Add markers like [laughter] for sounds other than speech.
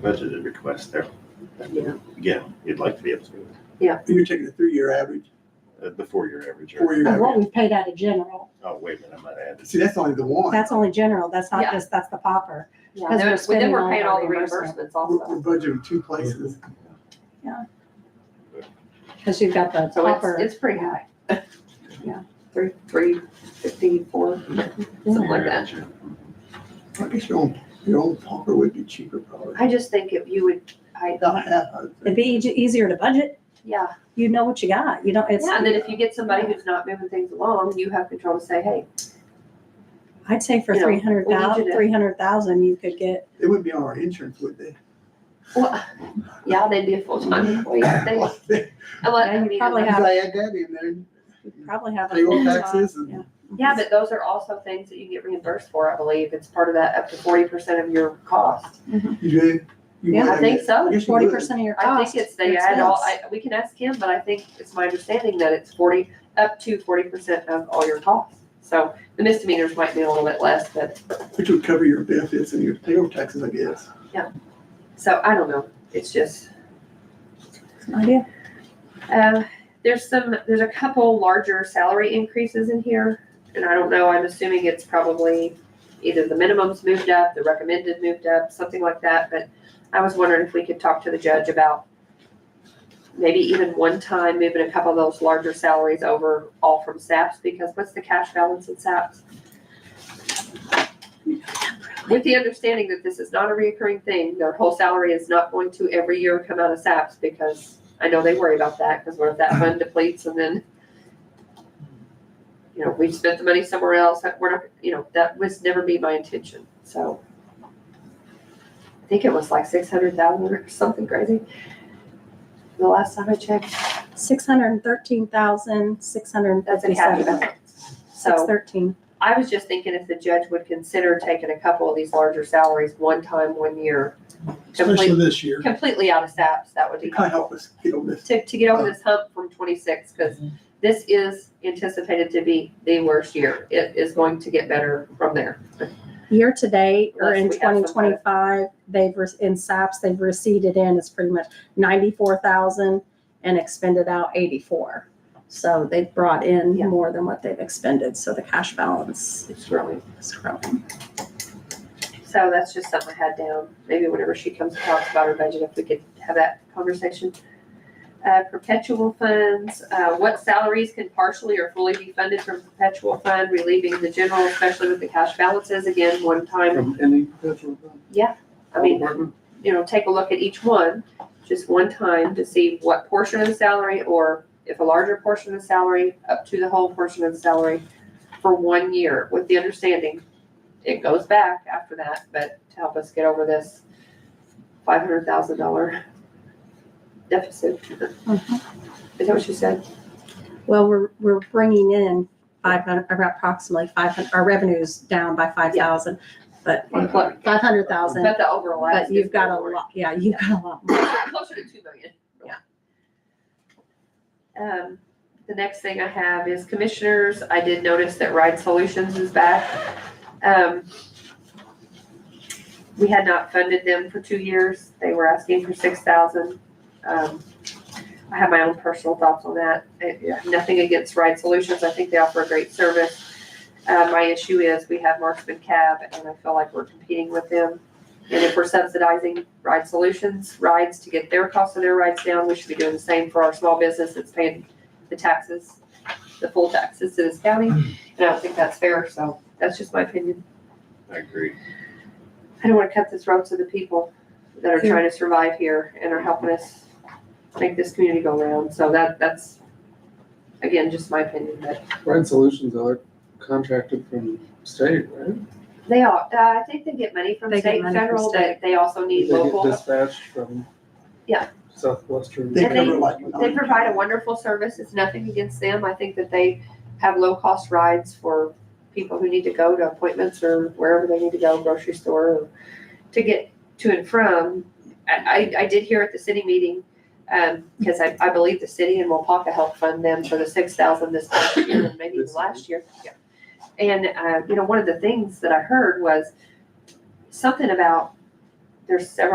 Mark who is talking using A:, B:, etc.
A: budgeted request there. uh,
B: Yeah.
A: Again, you'd like to be able to, do
C: You're taking a three-year average,
A: that. uh, the four-year average. or-
D: Oh,
C: four-year
E: Of what
C: average.
E: we paid out of general.
A: Oh, wait a minute, I might add this.
C: See, that's only the one.
D: That's only general, that's
B: Yeah.
D: not just, that's the popper.
B: Yeah, then
D: Because we're
B: we're- then
D: spending
B: we're
D: all
B: paying
D: of
B: all
D: our
B: the
D: reimbursement.
B: reimbursements
C: We're we're
B: also.
C: budgeting two places.
D: Because you've got the
B: So it's,
D: popper.
B: it's pretty high. Yeah, [laughs] three, three fifty, four, something like that.
C: I guess your own, your own pumper would be cheaper probably.
B: I just think if you would, I,
C: Not half, I would
D: It'd
C: think.
D: be easy- easier to budget.
B: yeah,
D: You know what you got. You don't, it's,
B: Yeah, and then if you get somebody who's not moving things along, you have control to say, hey,
D: I'd say for
B: You know,
D: three hundred
B: we
D: thousand,
B: need you to-
D: three hundred thousand, you could get,
C: They wouldn't be on our insurance, would they?
B: well, yeah, they'd be a full-time employee, I think.
C: [laughs] Well, they-
B: Unless-
D: Yeah, you
B: I mean,
D: probably
C: If
D: have-
C: I add that in there,
D: you'd probably have. a
C: payroll
D: full job.
C: taxes and.
D: Yeah.
B: Yeah, but those are also things that you get reimbursed for, I believe. It's part of that up to forty percent of your cost.
C: You do? You
D: Yeah,
C: would
B: I
C: have
B: think
C: it.
B: so.
C: I guess you
D: Forty
C: would.
D: percent of your
B: I
D: cost.
B: think it's, they add all, I, we can ask him, but I think it's my understanding that it's forty, up to forty percent of all your costs. So the misdemeanors might be a little bit less, but,
C: Which would cover your benefits and your payroll taxes, I guess.
B: so I don't know. It's just.
D: It's an idea.
B: Um, there's some, there's a couple larger salary increases in here, and I don't know, I'm assuming it's probably either the minimums moved up, the recommended moved up, something like that, but I was wondering if we could talk to the judge about maybe even one time moving a couple of those larger salaries over all from SAPs, because what's the cash balance in SAPs? With the understanding that this is not a reoccurring thing, their whole salary is not going to every year come out of SAPs, because I know they worry about that, because what if that fund depletes and then, you know, we've spent the money somewhere else, that we're not, you know, that was never be my intention, so. I think it was like six hundred thousand or something crazy. The last time I checked,
D: Six hundred and thirteen thousand, six hundred and
B: that's a cash
D: fifty-seven.
B: balance.
D: Six
B: So
D: thirteen.
B: I was just thinking if the judge would consider taking a couple of these larger salaries one time, one year,
C: Especially
B: completely,
C: this year.
B: completely out of SAPs, that would be
C: It kind of helped us get on this.
B: to, to get over this hump from twenty-six, because this is anticipated to be the worst year. It is going to get better from there.
D: Year to date or in
B: Unless we have some
D: twenty twenty-five, they've, re- in SAPs, they've receded in, it's pretty much ninety-four thousand and expended out eighty-four. So they've brought in
B: Yeah.
D: more than what they've expended, so the cash balance
B: It's growing.
D: is growing.
B: So that's just something I had down. Maybe whenever she comes and talks about her budget, if we could have that conversation. Uh, perpetual funds, uh, what salaries can partially or fully be funded from perpetual fund, relieving the general, especially with the cash balances, again, one time.
C: From any federal
B: I mean,
C: department.
B: you know, take a look at each one, just one time to see what portion of the salary or if a larger portion of the salary, up to the whole portion of the salary for one year with the understanding it goes back after that, but to help us get over this five hundred thousand dollar deficit. [laughs] Mm-hmm. Is that what you said?
D: Well, we're, we're bringing in five hundred, approximately five hundred, our revenue's down by five thousand,
B: But
D: five hundred thousand,
B: but the overall.
D: but you've got a lot, yeah, you've got a lot more.
B: [coughs] closer to two million.
D: Yeah.
B: Um, the next thing I have is commissioners. I did notice that Ride Solutions is back. Um, we had not funded them for two years. They were asking for six thousand. Um, I have my own personal thoughts on that. I- I have Nothing against Ride Solutions. I think they offer a great service. Uh, my issue is we have Marksman Cab and I feel like we're competing with them. And if we're subsidizing Ride Solutions rides to get their cost of their rides down, we should be doing the same for our small business that's paying the taxes, the full taxes to this county.
F: Hmm.
B: And I don't think that's fair, so that's just my opinion.
A: I agree.
B: I don't want to cut this road to the people that are trying to survive here and are helping us make this community go round. So that, that's, again, just my opinion, but
F: Ryan Solutions are contracted from state, right?
B: they all, uh, I think they get money from
D: They get
B: state and
D: money from
B: federal, but
D: state.
B: they also
F: They
B: need
F: get
B: local.
F: dispatched from.
B: Yeah.
F: Southwestern.
C: They
B: And they-
C: cover like.
B: They provide a wonderful service. It's nothing against them. I think that they have low cost rides for people who need to go to appointments or wherever they need to go, grocery store, or to get to and from. I, I, I did hear at the city meeting, um, because I, I believe the city and Wapaka helped fund them for the six thousand this past year and maybe even last year. Yeah. And, uh, you know, one of the things that I heard was something about, there's several